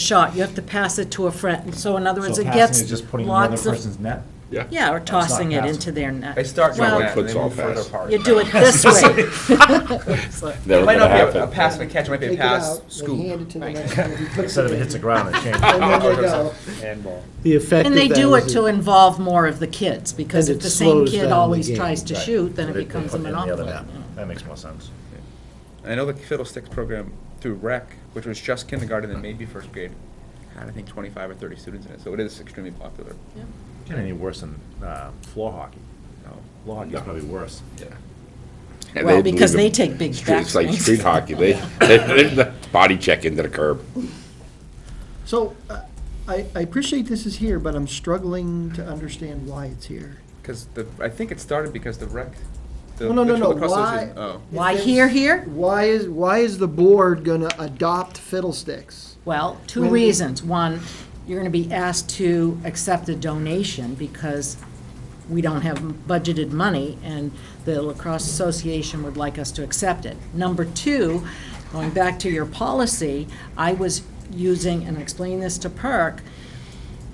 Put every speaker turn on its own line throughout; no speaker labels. shot, you have to pass it to a friend, so in other words,
So
it
passing is
gets
just putting in another
lots of.
person's net?
Yeah.
Yeah, or
That's not
tossing it
passing.
into their net.
They start
Well,
one way and they
Futsal
move further
pass.
apart.
You do it this way. So-
It
Never gonna
might not be a- a
happen.
pass and a catch, it might be a
Take it
pass,
out, then hand
scoop.
it to the next one. He puts it
Instead of it
in.
hits the ground, it changes.
And then they go.
Handball.
The effect of
And
that
they
is.
do it to involve more of the kids, because
And
if
it
the same
slows down
kid
the
always
game.
tries to
Right.
shoot, then it
They- they
becomes a
put in the other
monopoly.
net. That makes more sense.
I know the fiddlesticks program through rec, which was just kindergarten and maybe first grade, had I think twenty-five or thirty students in it, so it is extremely popular.
Yeah.
Getting any worse than uh, floor hockey.
No.
Floor hockey's probably worse.
Yeah.
And
Well,
they
because
leave
they take
them-
big
street- It's like
backswings.
street hockey, they, they, they body check into the curb.
So, uh, I, I appreciate this is here, but I'm struggling to understand why it's here.
Because the, I think it started because the rec. the-
No, no,
the
no, no,
lacrosse
why?
association- Oh.
Why
If
here,
it's-
here?
Why is, why is the board gonna adopt fiddlesticks?
Well, two
When-
reasons. One, you're going to be asked to accept a donation because we don't have budgeted money, and the lacrosse association would like us to accept it. Number two, going back to your policy, I was using, and I explained this to Perk,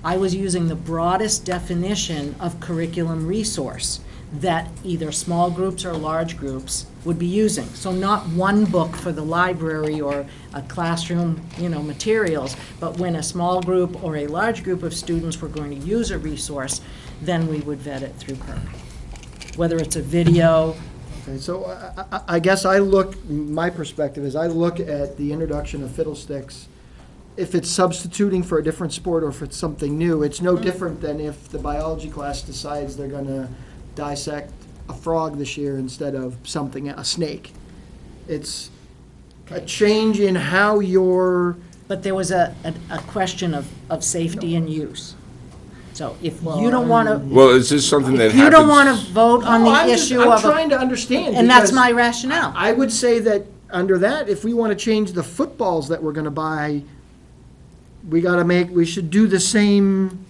I was using the broadest definition of curriculum resource that either small groups or large groups would be using. So not one book for the library or a classroom, you know, materials, but when a small group or a large group of students were going to use a resource, then we would vet it through PERC. Whether it's a video,
Okay, so I, I- I guess I look, my perspective is I look at the introduction of fiddlesticks. If it's substituting for a different sport or if it's something new, it's no different than if the biology class decides they're gonna dissect a frog this year instead of something, a snake. It's a change in how you're,
but there was a, a- a question of, of safety and use. So if you don't want to,
Well, is this something that
if
happens?
you don't want to vote on
No, Oh, I'm
the
just-
issue of
I'm trying
a,
to understand.
and that's
because
my rationale.
I would say that, under that, if we want to change the footballs that we're going to buy, we got to make, we should do the same,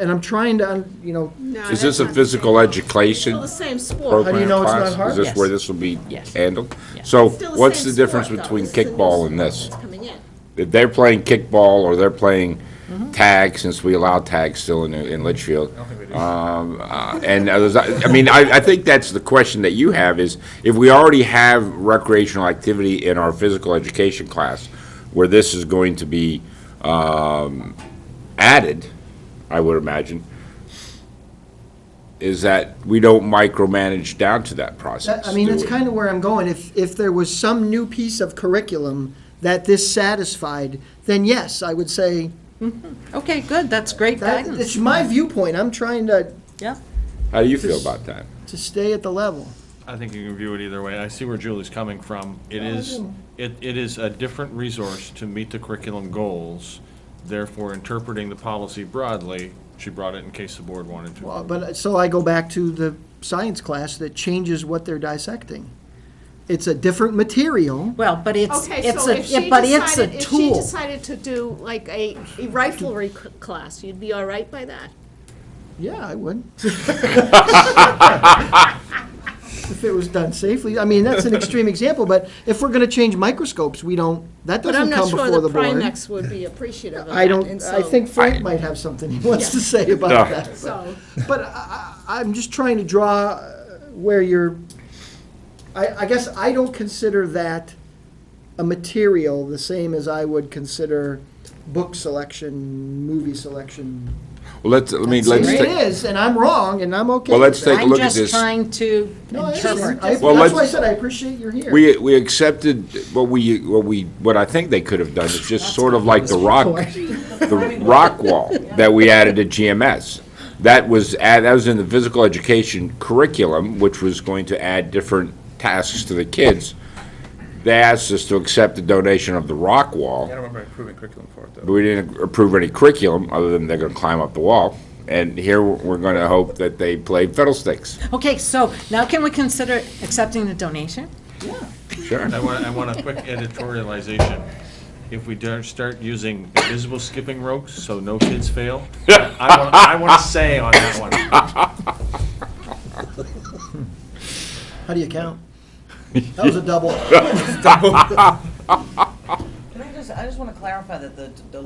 and I'm trying to, un- you know,
Is this a physical education?
Still the same sport.
program
How do you know it's
class?
not hard?
Is this
Yes.
where this will be
Yes.
handled? So
Still
what's
same
the difference
sport, though.
between
This is a new
kickball and
sport
this?
that's coming in.
If they're playing kickball or they're playing
Mm-hmm.
tag, since we allow tag still in, in Litchfield. um, uh, And others, I I mean, I, I think that's the question that you have is, if we already have recreational activity in our physical education class, where this is going to be um, added, I would imagine, is that we don't micromanage down to that process.
that- I mean,
do
that's
we?
kind of where I'm going. If, if there was some new piece of curriculum that this satisfied, then yes, I would say,
Mm-hmm. Okay, good, that's great
that,
guidance.
it's my viewpoint. I'm trying to,
Yeah.
How do you feel about that?
to stay at the level.
I think you can view it either way. I see where Julie's coming from. It is, it, it is a different resource to meet the curriculum goals. Therefore, interpreting the policy broadly, she brought it in case the board wanted to.
Well, Uh, but, so I go back to the science class that changes what they're dissecting. It's a different material.
Well, but it's,
Okay,
it's
so if
a,
she
but it's a
decided, if she
tool.
decided to do like a a riflery c- class, you'd be all right by that?
Yeah, I would. If it was done safely, I mean, that's an extreme example, but if we're gonna change microscopes, we don't, that
But
doesn't
I'm not
come
sure
before
the
the board.
Primex would be appreciative of that.
I don't,
and
I
so-
think Frank might have something he wants to say about
Yeah.
that.
So,
But I, I- I'm just trying to draw uh, where you're, I, I guess I don't consider that a material the same as I would consider book selection, movie selection.
Well, let's, let me, let's.
It
take-
is, and I'm wrong, and I'm okay
Well,
with
let's
that.
take a
I'm
look at this.
just trying to
No, I understand.
interpret.
I-
Well,
That's why I
let's-
said I appreciate you're here.
We, we accepted what we, what we, what I think they could have done is just sort of like the rock, the rock wall that we added at GMS. That was, add- that was in the physical education curriculum, which was going to add different tasks to the kids. They asked us to accept the donation of the rock
I
wall,
don't remember approving curriculum for it,
but
though.
we didn't approve any curriculum, other than they're gonna climb up the wall. And here, we're gonna hope that they play fiddlesticks.
Okay, so now can we consider accepting the donation?
Sure.
I want, I want a quick editorialization. If we don't start using invisible skipping ropes, so no kids fail, I want, I want to say on that one.
How do you count? That was a double.
Can I just, I just want to clarify that the, the